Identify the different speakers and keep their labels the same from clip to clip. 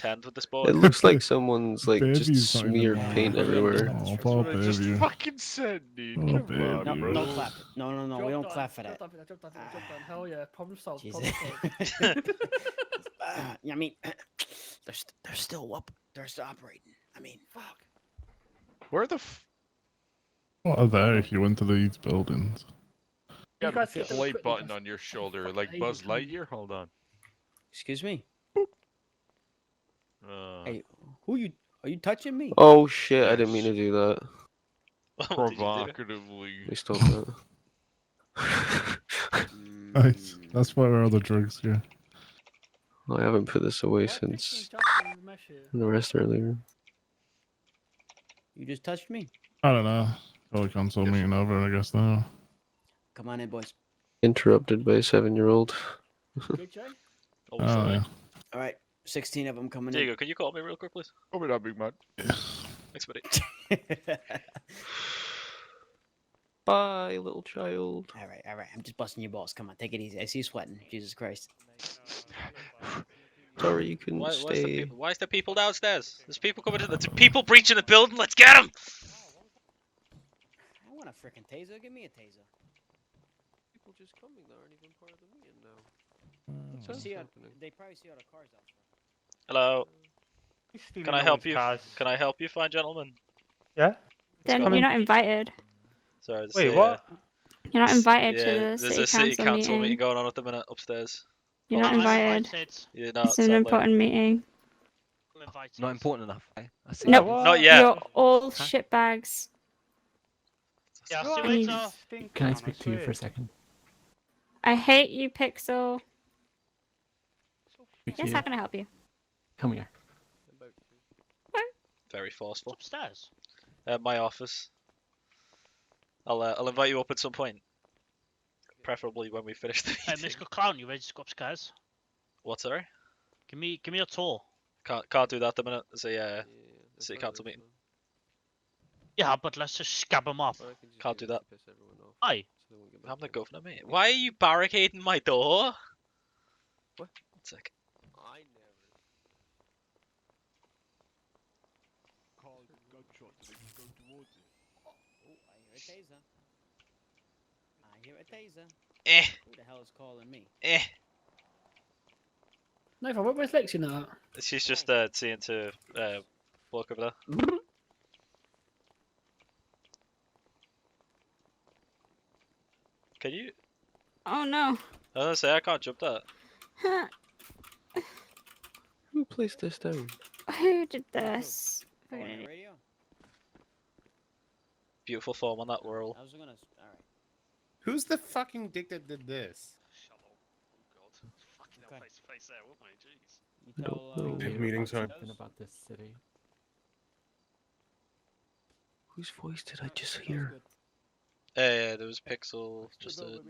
Speaker 1: tanned with this boy.
Speaker 2: It looks like someone's like
Speaker 3: Baby's
Speaker 2: just
Speaker 3: not even
Speaker 2: smeared
Speaker 3: mine.
Speaker 2: paint everywhere.
Speaker 3: Oh,
Speaker 4: That's
Speaker 3: poor
Speaker 4: what I just
Speaker 3: baby.
Speaker 4: fucking said, dude.
Speaker 3: Oh,
Speaker 4: Come
Speaker 3: baby.
Speaker 4: on,
Speaker 5: No,
Speaker 3: Bro.
Speaker 5: don't
Speaker 4: bro.
Speaker 5: clap. No, no, no, we don't clap for that.
Speaker 6: Jump on it, jump on it, jump
Speaker 5: Ah.
Speaker 6: on it. Hell yeah, problem solved.
Speaker 5: Jesus.
Speaker 6: Problem solved.
Speaker 5: Uh, I mean, they're st- they're still up. They're still operating. I mean,
Speaker 6: Fuck.
Speaker 4: Where the f-
Speaker 3: What are there if you went to these buildings?
Speaker 4: you
Speaker 6: guys
Speaker 4: got
Speaker 6: get
Speaker 4: a
Speaker 6: those
Speaker 4: light
Speaker 6: quick
Speaker 4: button
Speaker 6: ones.
Speaker 4: on your shoulder,
Speaker 6: Fuck, I
Speaker 4: like
Speaker 6: even
Speaker 4: Buzz
Speaker 6: tried.
Speaker 4: Lightyear? Hold on.
Speaker 5: excuse me.
Speaker 4: Uh,
Speaker 5: Hey, who you are you touching me?
Speaker 2: Oh shit! I didn't mean to do that.
Speaker 4: Oh,
Speaker 1: What did you do?
Speaker 4: provocatively.
Speaker 2: They stopped that.
Speaker 3: Nice.
Speaker 5: Mm.
Speaker 3: That's why we're all the drugs here.
Speaker 2: I haven't put this
Speaker 6: Why
Speaker 2: away
Speaker 6: did we
Speaker 2: since
Speaker 6: jump on the mesh here?
Speaker 2: the rest earlier.
Speaker 5: You just touched me.
Speaker 3: I don't know. Call the console
Speaker 4: Yes.
Speaker 3: meeting over, I guess now.
Speaker 5: Come on in, boys.
Speaker 2: Interrupted by a seven-year-old.
Speaker 6: Good, Jay?
Speaker 1: Oh,
Speaker 3: Oh,
Speaker 1: sorry.
Speaker 3: yeah.
Speaker 5: All right, sixteen of them coming
Speaker 1: Diego, can you call me real quick, please?
Speaker 4: Open up, big man.
Speaker 1: Thanks, buddy.
Speaker 5: in.
Speaker 2: Bye, little child.
Speaker 5: all right, all right. I'm just busting your balls. Come on, take it easy. I see you sweating. Jesus Christ.
Speaker 2: Sorry you couldn't
Speaker 1: Why, why, is the
Speaker 2: stay.
Speaker 1: people, why is there people downstairs? There's people coming to the there's people breaching the building. Let's get them.
Speaker 5: I want a freaking taser. Give me a taser.
Speaker 2: People just coming that aren't even part of the meeting now.
Speaker 5: You
Speaker 2: What's
Speaker 5: see how-
Speaker 2: happening?
Speaker 5: they probably see all the cars out front.
Speaker 1: Hello.
Speaker 7: Can
Speaker 1: I help you? Can I help you, fine gentlemen?
Speaker 7: Yeah.
Speaker 8: Then
Speaker 1: go.
Speaker 8: you're not invited.
Speaker 1: Sorry. there's
Speaker 7: Wait,
Speaker 1: a,
Speaker 7: what?
Speaker 8: You're not
Speaker 1: s-
Speaker 8: invited
Speaker 1: yeah,
Speaker 8: to the
Speaker 1: there's
Speaker 8: city,
Speaker 1: a city
Speaker 8: council,
Speaker 1: council meeting.
Speaker 8: meeting.
Speaker 1: going on at the minute upstairs.
Speaker 8: You're not
Speaker 1: Oh,
Speaker 8: invited.
Speaker 1: Yeah, no,
Speaker 8: It's
Speaker 1: Oh,
Speaker 8: an
Speaker 1: sadly.
Speaker 8: important meeting.
Speaker 9: Not important enough. Eh? I see.
Speaker 8: No,
Speaker 7: what?
Speaker 1: Not yet.
Speaker 8: You're all
Speaker 9: Huh?
Speaker 8: shitbags.
Speaker 7: Yeah, uh,
Speaker 8: I
Speaker 7: I'll see you
Speaker 8: need-
Speaker 7: later. Think
Speaker 9: Can I
Speaker 7: on,
Speaker 9: speak to you for
Speaker 7: swear.
Speaker 9: a second?
Speaker 8: I hate you, Pixel.
Speaker 9: Speak to
Speaker 8: Yes,
Speaker 9: you.
Speaker 8: how can I help you?
Speaker 9: Come here.
Speaker 1: Very forceful.
Speaker 7: upstairs.
Speaker 1: Uh, my office. I'll uh, I'll invite you up at some point. Preferably when we finish the
Speaker 7: Hey,
Speaker 1: meeting.
Speaker 7: Mr. Clown, you ready to go upstairs?
Speaker 1: What? Sorry.
Speaker 7: Give me, give me a tour.
Speaker 1: Can't can't do that at the minute. There's a uh,
Speaker 2: that's
Speaker 1: City
Speaker 2: why
Speaker 1: council
Speaker 2: there's
Speaker 1: meeting.
Speaker 7: Yeah, but let's just scab them up.
Speaker 2: no- I can just
Speaker 1: Can't do
Speaker 2: that
Speaker 1: that.
Speaker 2: to piss everyone off,
Speaker 7: Aye.
Speaker 2: so they won't get back
Speaker 1: I'm the
Speaker 2: to me.
Speaker 1: governor, mate. Why are you barricading my door?
Speaker 2: What?
Speaker 1: One sec.
Speaker 2: I never.
Speaker 5: Oh, I hear a taser. I hear a taser.
Speaker 1: Eh,
Speaker 5: Who the hell is calling me?
Speaker 1: eh.
Speaker 6: Nathan, what was Lexi now?
Speaker 1: She's just uh, seeing to uh, walk over there. Can you?
Speaker 8: Oh no.
Speaker 1: I was gonna say I can't jump that.
Speaker 8: Huh,
Speaker 2: Who placed this down?
Speaker 8: Who did this?
Speaker 5: Calling the radio?
Speaker 1: Beautiful form on that
Speaker 10: Oh.
Speaker 1: whirl.
Speaker 5: I was gonna. s- All right.
Speaker 10: Who's the fucking dick that did this?
Speaker 5: Okay. You
Speaker 2: I
Speaker 5: tell,
Speaker 2: don't
Speaker 5: uh,
Speaker 2: know.
Speaker 9: Weird
Speaker 10: meeting
Speaker 9: about
Speaker 10: time.
Speaker 9: something About this city.
Speaker 2: Whose voice did I
Speaker 5: Alright,
Speaker 2: just
Speaker 5: sounds
Speaker 2: hear?
Speaker 5: good.
Speaker 1: Uh, yeah, there was Pixel. Just a...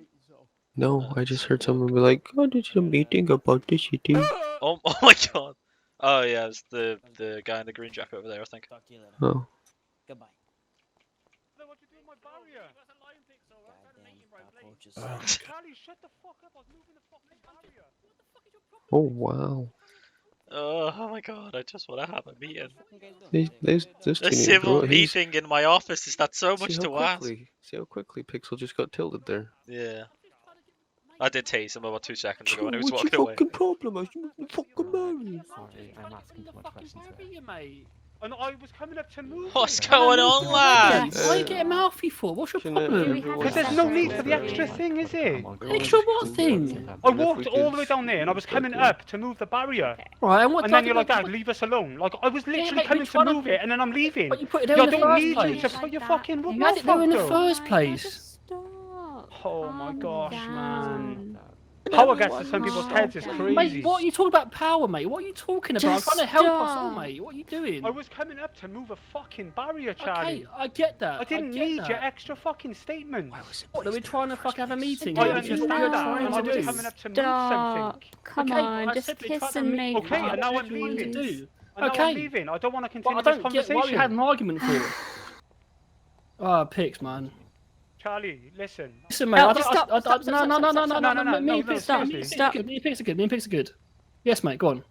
Speaker 2: No,
Speaker 1: Uh,
Speaker 2: I just heard
Speaker 1: so-
Speaker 2: someone be like, "Oh, there's a meeting about this city."
Speaker 7: Ah!
Speaker 1: oh, oh my god. Oh yeah, it's the the guy in the green jacket over there. I think.
Speaker 5: Talk to you later.
Speaker 2: Oh,
Speaker 5: Goodbye.
Speaker 7: What you doing, my barrier?
Speaker 5: Goddamn cockroaches.
Speaker 7: Charlie, shut the fuck up! I was moving the fucking barrier.
Speaker 2: oh wow.
Speaker 1: Oh, oh my god! I just want to have a meeting.
Speaker 5: Fucking guys doing?
Speaker 2: They,
Speaker 5: Hey,
Speaker 2: they,
Speaker 5: good, uh,
Speaker 2: this
Speaker 1: A
Speaker 2: dude even
Speaker 1: civil
Speaker 2: brought his-
Speaker 1: meeting in my office. Is that so
Speaker 2: See
Speaker 1: much
Speaker 2: how
Speaker 1: to ask?
Speaker 2: quickly, See how quickly Pixel just got tilted there.
Speaker 1: Yeah. I did tase him about two seconds ago and he was
Speaker 2: What's
Speaker 1: walking
Speaker 2: your
Speaker 1: away.
Speaker 2: fucking problem? Are you fucking married?
Speaker 9: Sorry, I'm asking too much questions here.
Speaker 6: mate.
Speaker 7: And I was coming up to move.
Speaker 1: What's
Speaker 7: it.
Speaker 1: going on, lad?
Speaker 2: lads?
Speaker 6: Why get a mouthy for? What's your
Speaker 2: Shouldn't it-
Speaker 6: problem?
Speaker 2: everyone-
Speaker 7: Because there's no need for the extra thing, is it?
Speaker 9: I'm on
Speaker 6: Extra
Speaker 9: Greenwich
Speaker 6: what
Speaker 9: Village,
Speaker 6: thing?
Speaker 9: so-
Speaker 7: I
Speaker 2: And if
Speaker 7: walked
Speaker 2: we
Speaker 7: all
Speaker 2: could
Speaker 7: the way down there and I was
Speaker 2: split
Speaker 7: coming
Speaker 2: it.
Speaker 7: up to move the barrier.
Speaker 6: Right, and what
Speaker 7: And then
Speaker 6: do I
Speaker 7: you're
Speaker 6: do
Speaker 7: like,
Speaker 6: about
Speaker 7: Dad, leave us alone. Like, I was
Speaker 6: Yeah,
Speaker 7: literally
Speaker 6: but
Speaker 7: coming
Speaker 6: which
Speaker 7: to
Speaker 6: one of
Speaker 7: move
Speaker 6: them-
Speaker 7: it and then I'm
Speaker 6: it?
Speaker 7: leaving.
Speaker 6: But you put it there
Speaker 7: Yeah, I
Speaker 6: in the
Speaker 7: don't
Speaker 6: first
Speaker 7: need you
Speaker 6: place.
Speaker 7: to put your fucking
Speaker 6: You
Speaker 7: what
Speaker 6: had it there in the
Speaker 7: fucked up.
Speaker 6: first place.
Speaker 8: Stop.
Speaker 7: Oh my
Speaker 8: Calm
Speaker 7: gosh, man.
Speaker 8: down.
Speaker 7: Power gets to some people's
Speaker 8: Everyone
Speaker 7: heads is
Speaker 8: calm down.
Speaker 7: crazy.
Speaker 6: Mate, what are you talking about power, mate? What are you talking about?
Speaker 8: Just
Speaker 6: I'm trying to help us all,
Speaker 8: stop.
Speaker 6: mate. What are you doing?
Speaker 7: I was coming up to move a fucking barrier, Charlie.
Speaker 6: okay, I get that.
Speaker 7: I didn't
Speaker 6: get
Speaker 7: need
Speaker 6: that.
Speaker 7: your extra fucking statement.
Speaker 6: What, are we trying to fucking have a meeting?
Speaker 7: I
Speaker 6: What
Speaker 8: Don't you
Speaker 7: understand
Speaker 8: know
Speaker 7: that.
Speaker 8: what
Speaker 7: and I
Speaker 8: I'm
Speaker 7: was
Speaker 8: doing?
Speaker 7: coming up to move
Speaker 8: Stop.
Speaker 7: something.
Speaker 8: Come
Speaker 6: Okay,
Speaker 8: on,
Speaker 6: I
Speaker 8: just
Speaker 6: simply tried
Speaker 8: kiss
Speaker 6: to
Speaker 8: and
Speaker 6: make
Speaker 8: make
Speaker 7: Okay,
Speaker 6: up.
Speaker 7: and now
Speaker 6: What
Speaker 7: I'm
Speaker 6: do you want to
Speaker 7: leaving.
Speaker 6: do?
Speaker 7: And now
Speaker 6: Okay.
Speaker 7: I'm leaving. I don't want to
Speaker 6: Well,
Speaker 7: continue
Speaker 6: I
Speaker 7: this
Speaker 6: don't get
Speaker 7: conversation.
Speaker 6: why we had an argument for it. Ah, picks, man.
Speaker 7: Charlie, listen.
Speaker 6: Listen, mate.
Speaker 8: No,
Speaker 6: I
Speaker 8: just
Speaker 6: don't-
Speaker 8: stop,
Speaker 6: I- I-
Speaker 8: stop,
Speaker 6: No,
Speaker 8: stop,
Speaker 6: no, no,
Speaker 8: stop,
Speaker 6: no, no,
Speaker 8: stop,
Speaker 6: no,
Speaker 7: stop,
Speaker 6: no, no.
Speaker 7: stop,
Speaker 6: Me
Speaker 7: no,
Speaker 6: and picks
Speaker 8: no,
Speaker 6: are good. Me and picks are
Speaker 8: stop.
Speaker 6: good. Me and picks are good. Me and picks are good. Yes, mate. Go on.